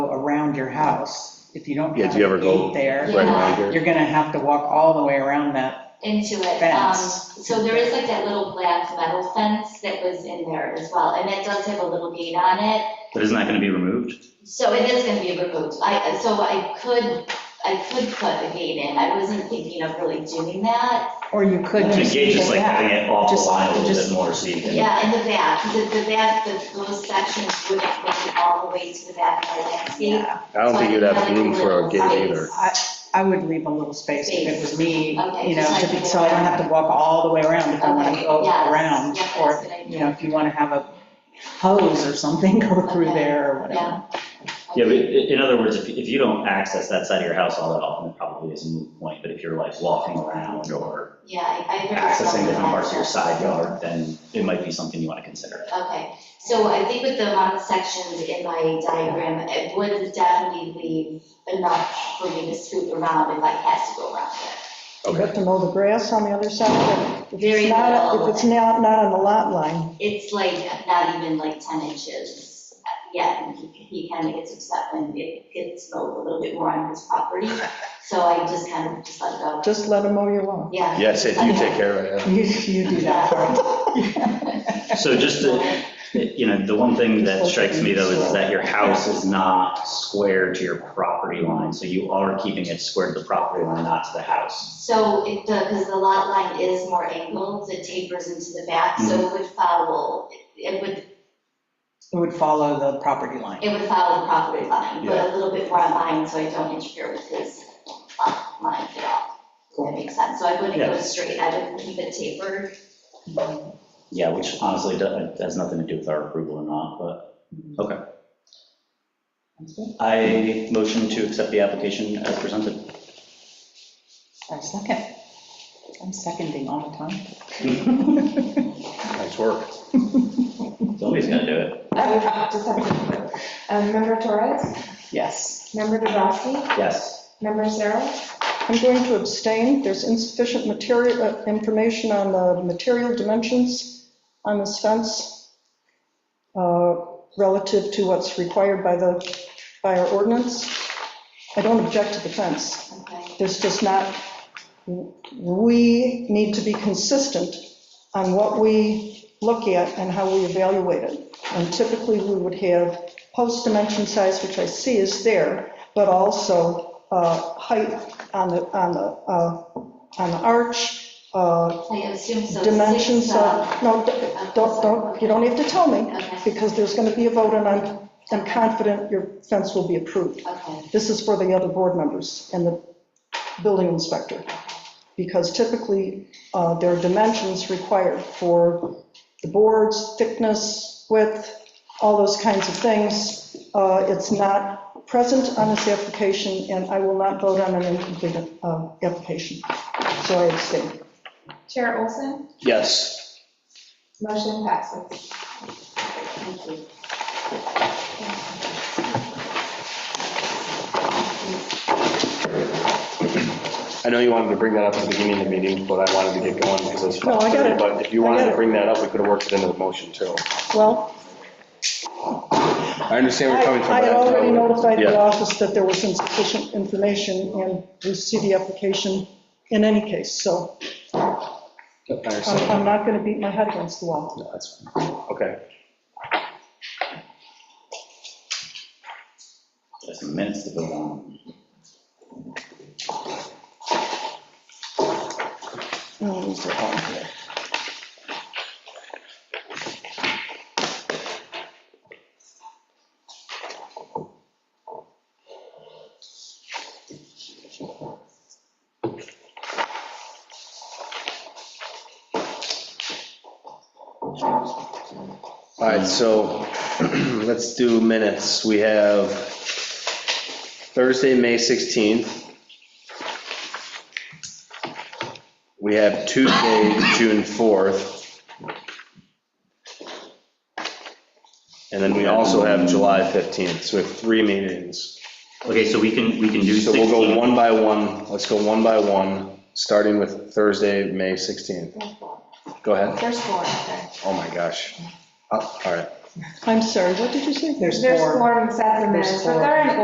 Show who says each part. Speaker 1: house, if you don't
Speaker 2: Yeah,
Speaker 1: have
Speaker 2: do you
Speaker 1: a
Speaker 2: ever
Speaker 1: gate
Speaker 2: go right
Speaker 1: there,
Speaker 2: around here?
Speaker 1: you're gonna have to walk all the way around that.
Speaker 3: into it. Um,
Speaker 1: Fence.
Speaker 3: so there is like that little black metal fence that was in there as well, and it does have a little gate on it.
Speaker 4: But isn't that gonna be removed?
Speaker 3: So it is gonna be removed. I, so I could, I could put a gate in. I wasn't thinking of really doing that.
Speaker 1: Or you could
Speaker 4: To
Speaker 1: just
Speaker 4: gauge
Speaker 1: leave
Speaker 4: is
Speaker 1: it
Speaker 4: like having
Speaker 1: that.
Speaker 4: it off the
Speaker 1: Just-
Speaker 4: line a little
Speaker 1: just-
Speaker 4: bit more, so you can.
Speaker 3: Yeah, in the back, because the back, the- those sections wouldn't make it all the way to the back of the landscape.
Speaker 1: Yeah,
Speaker 2: I don't think you'd have room for a gate either.
Speaker 1: I would leave a little space if it was me,
Speaker 3: Okay,
Speaker 1: you know,
Speaker 3: just
Speaker 1: to
Speaker 3: like-
Speaker 1: be- so I don't have to walk all the way around if I wanna
Speaker 3: Okay,
Speaker 1: go
Speaker 3: yes,
Speaker 1: around.
Speaker 3: yes,
Speaker 1: Or,
Speaker 3: that's a good idea.
Speaker 1: you know, if you wanna have a hose or something go through
Speaker 3: Okay,
Speaker 1: there or whatever.
Speaker 3: Yeah.
Speaker 4: Yeah, but i- in other words, if, if you don't access that side of your house all that often, it probably is a moot point, but if you're like walking around or
Speaker 3: Yeah, I. I never thought
Speaker 4: accessing
Speaker 3: of
Speaker 4: different
Speaker 3: that.
Speaker 4: parts of your side yard, then it might be something you wanna consider.
Speaker 3: Okay, so I think with the amount of sections in my diagram, it would definitely leave enough for me to scoot around if I had to go around it.
Speaker 5: You have
Speaker 2: Okay,
Speaker 5: to mow the grass on the other side, but if
Speaker 3: Very
Speaker 5: it's not,
Speaker 3: little.
Speaker 5: if it's not, not on the lot line,
Speaker 3: It's like not even like ten inches yet, and he, he kind of gets upset when it gets mowed a little bit more on his property. So I just kind of just let it go,
Speaker 5: just let them mow your lawn.
Speaker 3: yeah.
Speaker 2: yes, if you take care of it.
Speaker 1: You, you do that part.
Speaker 4: So just to, you know, the one thing that strikes me though is that your house is not square to your property line, so you are keeping it square to the property line, not to the house.
Speaker 3: So it, the, because the lot line is more angled, it tapers into the back,
Speaker 2: Mm-hmm.
Speaker 3: so it would follow, it would
Speaker 1: It would follow the property line.
Speaker 3: It would follow the property line, but a little bit more on mine, so I don't interfere with his uh, line at all. That makes sense, so I wouldn't go
Speaker 4: Yeah.
Speaker 3: straight, I would keep it tapered.
Speaker 4: Yeah, which honestly do- has nothing to do with our approval or not, but, okay. I motion to accept the application as presented.
Speaker 1: I second. I'm seconding all the time.
Speaker 2: Nice work.
Speaker 4: Somebody's gonna do it.
Speaker 6: I just have to- um, Member Torres,
Speaker 1: Yes.
Speaker 6: member Dubrasky,
Speaker 4: Yes.
Speaker 6: member Sarah,
Speaker 5: I'm going to abstain, there's insufficient material, uh, information on the material dimensions on this fence uh, relative to what's required by the, by our ordinance. I don't object to the fence,
Speaker 3: Okay.
Speaker 5: There's just not, we need to be consistent on what we look at and how we evaluate it. And typically, we would have post dimension size, which I see is there, but also uh, height on the, on the, uh, on the arch, uh,
Speaker 3: I assume so.
Speaker 5: dimensions
Speaker 3: six, uh,
Speaker 5: of, no, don't, don't, you don't have to tell me,
Speaker 3: Okay,
Speaker 5: because there's going to be a vote, and I'm, I'm confident your fence will be approved.
Speaker 3: uh, okay,
Speaker 5: This is for the other board members and the building inspector, because typically, uh, there are dimensions required for the boards, thickness, width, all those kinds of things. Uh, It's not present on this application, and I will not vote on an incomplete uh, application, so I abstain.
Speaker 6: Chair Olson,
Speaker 2: Yes,
Speaker 6: motion passes.
Speaker 3: thank you.
Speaker 2: I know you wanted to bring that up at the beginning of the meeting, but I wanted to get going because it's
Speaker 5: No, I got
Speaker 2: 5:30,
Speaker 5: it.
Speaker 2: But if you
Speaker 5: I
Speaker 2: wanted
Speaker 5: got
Speaker 2: to
Speaker 5: it.
Speaker 2: bring that up, we could have worked it into the motion too.
Speaker 5: Well,
Speaker 2: I understand where you're coming from.
Speaker 5: I I
Speaker 2: but
Speaker 5: had already notified the
Speaker 2: Yeah,
Speaker 5: office that there was insufficient information, and we see the application in any case, so.
Speaker 2: I
Speaker 5: I'm
Speaker 2: understand.
Speaker 5: I'm not going to beat my head against the wall.
Speaker 2: No, that's fine. Okay.
Speaker 4: Just some minutes to vote on.
Speaker 5: Oh, these are all here.
Speaker 2: All right, so let's do minutes. We have Thursday, May 16th. We have Tuesday, June 4th. And then we also have July 15th, so we have three meetings.
Speaker 4: Okay, so we can, we can do
Speaker 2: So we'll
Speaker 4: 16.
Speaker 2: go one by one, let's go one by one, starting with Thursday, May 16th. Go ahead.
Speaker 6: There's four, okay.
Speaker 2: Oh, my gosh. Oh, All right.
Speaker 5: I'm sorry, what did you say?
Speaker 1: There's
Speaker 6: There's
Speaker 1: four.
Speaker 6: four sets of minutes, but they're in